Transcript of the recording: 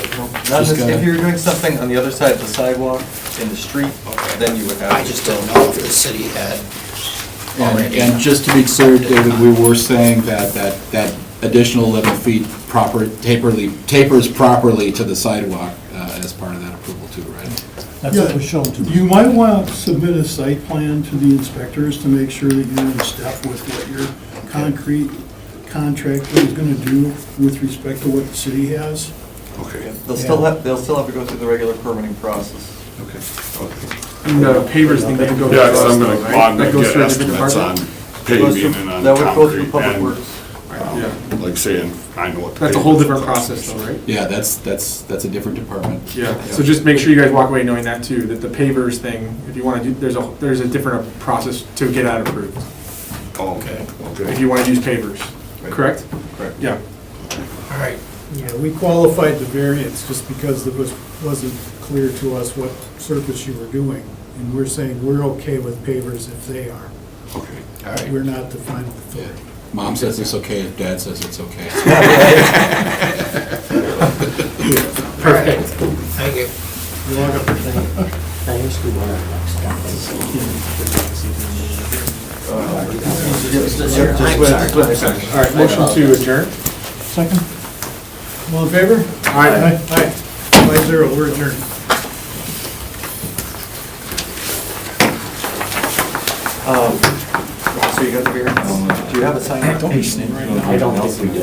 Not Just this- If gotta- you were doing something on the other side of the sidewalk, in the street, then you would have. I just don't know if the city had And already. and just to be clear, David, we were saying that, that, that additional 11 feet proper, taperly, tapers properly to the sidewalk uh, as part of that approval too, right? That's what was shown to me. You might want to submit a site plan to the inspectors to make sure that you're in step with what your concrete contractor is going to do with respect to what the city has. Yeah, Okay, They'll still have, they'll still have to go through the regular permitting process. okay. And the pavers thing, they have to go through Yeah, us, because I'm though, gonna, right? well, I'm That gonna goes get through a different estimates on department? Goes through- paving and on That would go through concrete public and, works. um, like saying, I know what. the That's a whole paving different costs. process though, right? Yeah, that's, that's, that's a different department. Yeah, so just make sure you guys walk away knowing that too, that the pavers thing, if you want to do, there's a, there's a different process to get that approved, Oh, Okay, if okay. you want to use pavers, correct? Correct. Yeah, All right, Yeah, we qualified the variance just because it was, wasn't clear to us what surface you were doing. And we're saying we're okay with pavers if they are. Okay. all right. We're not the final authority. Mom says it's okay, dad says it's okay. Perfect. Thank you. all right, motion to adjourn? Second? All in favor? All right, Aye. Five zero, we're adjourned. Um, So you guys are here, do you have a sign? Don't be sneering. I don't think we do.